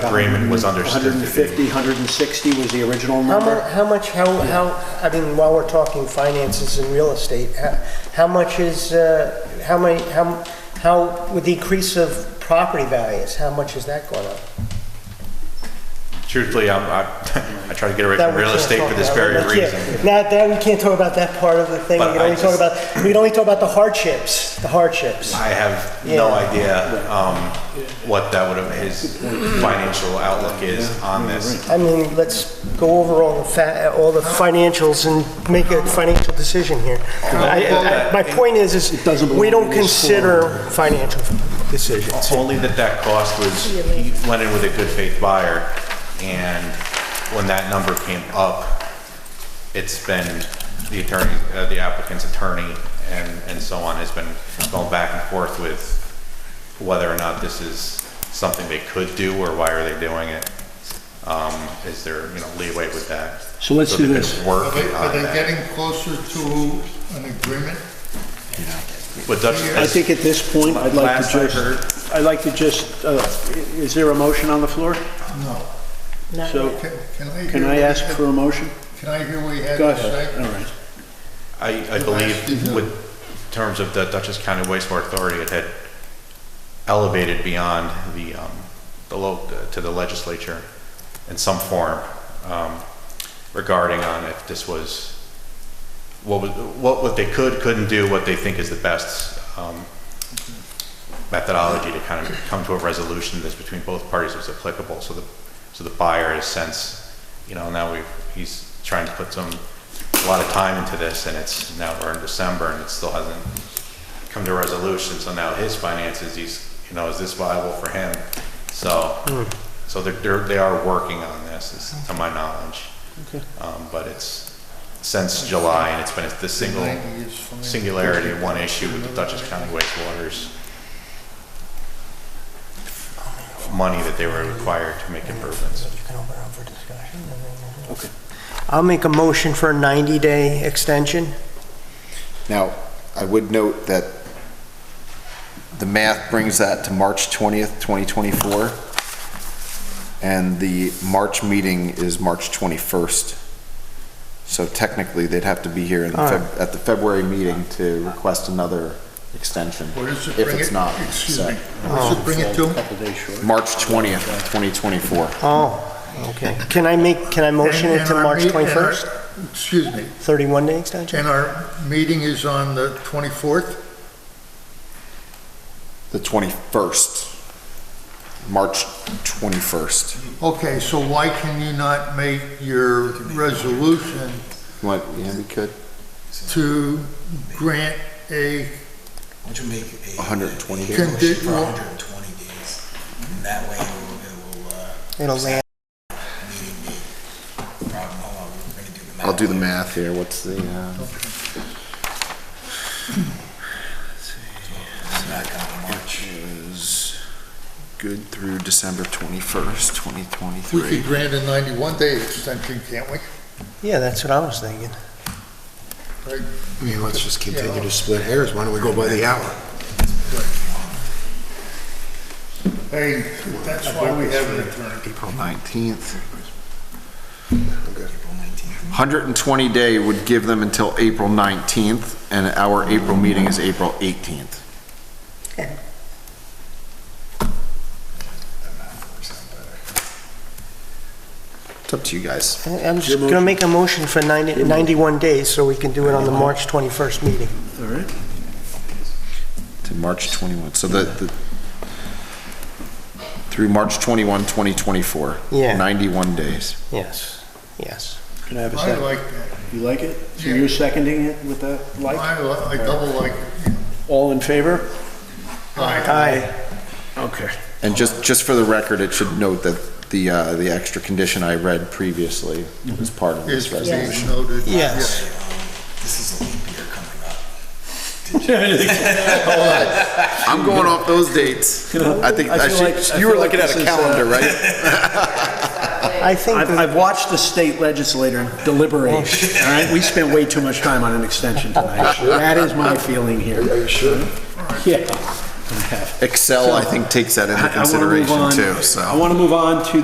agreement Uh, was understood to be. 150, 160 was the original How much, number. how much, how, how, I mean, while we're talking finances and real estate, how, how much is, uh, how many, how, how, with the increase of property values, how much is that going up? Truthfully, I'm, I, I try to get away That from we real can't estate talk for this about. very That's it. reason. Not, that, we can't talk about that part of the thing, we But can I only talk just- about, we can only talk about the hardships, the hardships. I have no Yeah. idea, um, what that would have, his financial outlook is on this. I mean, let's go over all the fa, all the financials and make a financial decision here. I- I- My point is, It is doesn't belong we in don't this consider financial decisions. Only that that cost was, he went in with a good faith buyer, and when that number came up, it's been the attorney, uh, the applicant's attorney and, and so on has been going back and forth with whether or not this is something they could do or why are they doing it? Um, is there, you know, leeway with that? So let's do they could this. Work Are they, are on they that. getting closer to an agreement? But that's- I think at this point, I'd like to Last I heard. just, I'd like to just, uh, i- is there a motion on the floor? No. So Can can I hear? can I what ask he- for a motion? Can I hear what he had Go to ahead, all say? right. I, I Last believe review. with terms of the Dutchess County wastewater authority, it had elevated beyond the, um, the low, to the legislature in some form, um, regarding on if this was, what was, what, what they could, couldn't do, what they think is the best, um, methodology to kind of come to a resolution that's between both parties was applicable. So the, so the buyer has since, you know, now we, he's trying to put some, a lot of time into this and it's, now we're in December and it still hasn't come to a resolution. So now his finances, he's, you know, is this viable for him? So, so they're- they're, they are working on this, is to my knowledge. Um, but it's since July and it's been the single Ninety is fine. singularity, one issue with the Dutchess County wastewaters. Money that they were required to make improvements. I'll make a motion for a 90-day extension. Now, I would note that the math brings that to March 20th, 2024, and the March meeting is March 21st. So technically, they'd have to be here in the Feb- at the February meeting to request another extension, What does it if bring it's it- not. Excuse so- me, what does it bring it to? Couple days short. March 20th, 2024. Oh, okay. Can I make, can I motion And- it to and our March meet- and our- 21st? Excuse me, 31-day extension? and our meeting is on the twenty-fourth? The 21st. March 21st. Okay, so why can you not make your resolution What, yeah, we could? to grant a, Would you make a? 120 a days? motion For Well- hundred and twenty days, and that way it will, it will, uh, It'll land, meeting the problem, hold on, we're gonna do the math. I'll do the math here. What's the, uh? It's not gonna March march. is good through December 21st, we could 2023. grant a ninety-one day extension, can't we? yeah, that's what I was thinking. Right? I mean, let's just continue Yeah. to split hairs. Why don't we go by the hour? Hey, that's why we have an attorney. April 19th. April nineteenth. 120 day would give them until April 19th, and our April meeting is April 18th. That math works out better. It's up to you guys. I- I'm just going to make a motion for 90 91 days, so we can do it on the March 21st meeting. All right. To March 21, so the, the- through March 21, 2024. Yeah. 91 days. Yes, yes. Can I have a I second? like that. You like it? So Yeah. you're seconding it with that like? I, li- I double like it. All in favor? Aye. Aye, Okay. And just, just for the record, it should note that the, uh, the extra condition I read previously was part of Is this resolution. being noted. yes. Um, This is a leap year coming up. I'm going off those dates. I think, I I feel like- I should, you were feel like looking at this a is, uh, calendar, right? I think, I've, I've watched the state legislator deliberate, Oh. all right? We spent way too much time on an extension tonight. That is my feeling here. Are you sure? Yeah. have. Excel, I think, takes that into I- I wanna move consideration on- too, so. I want to move on to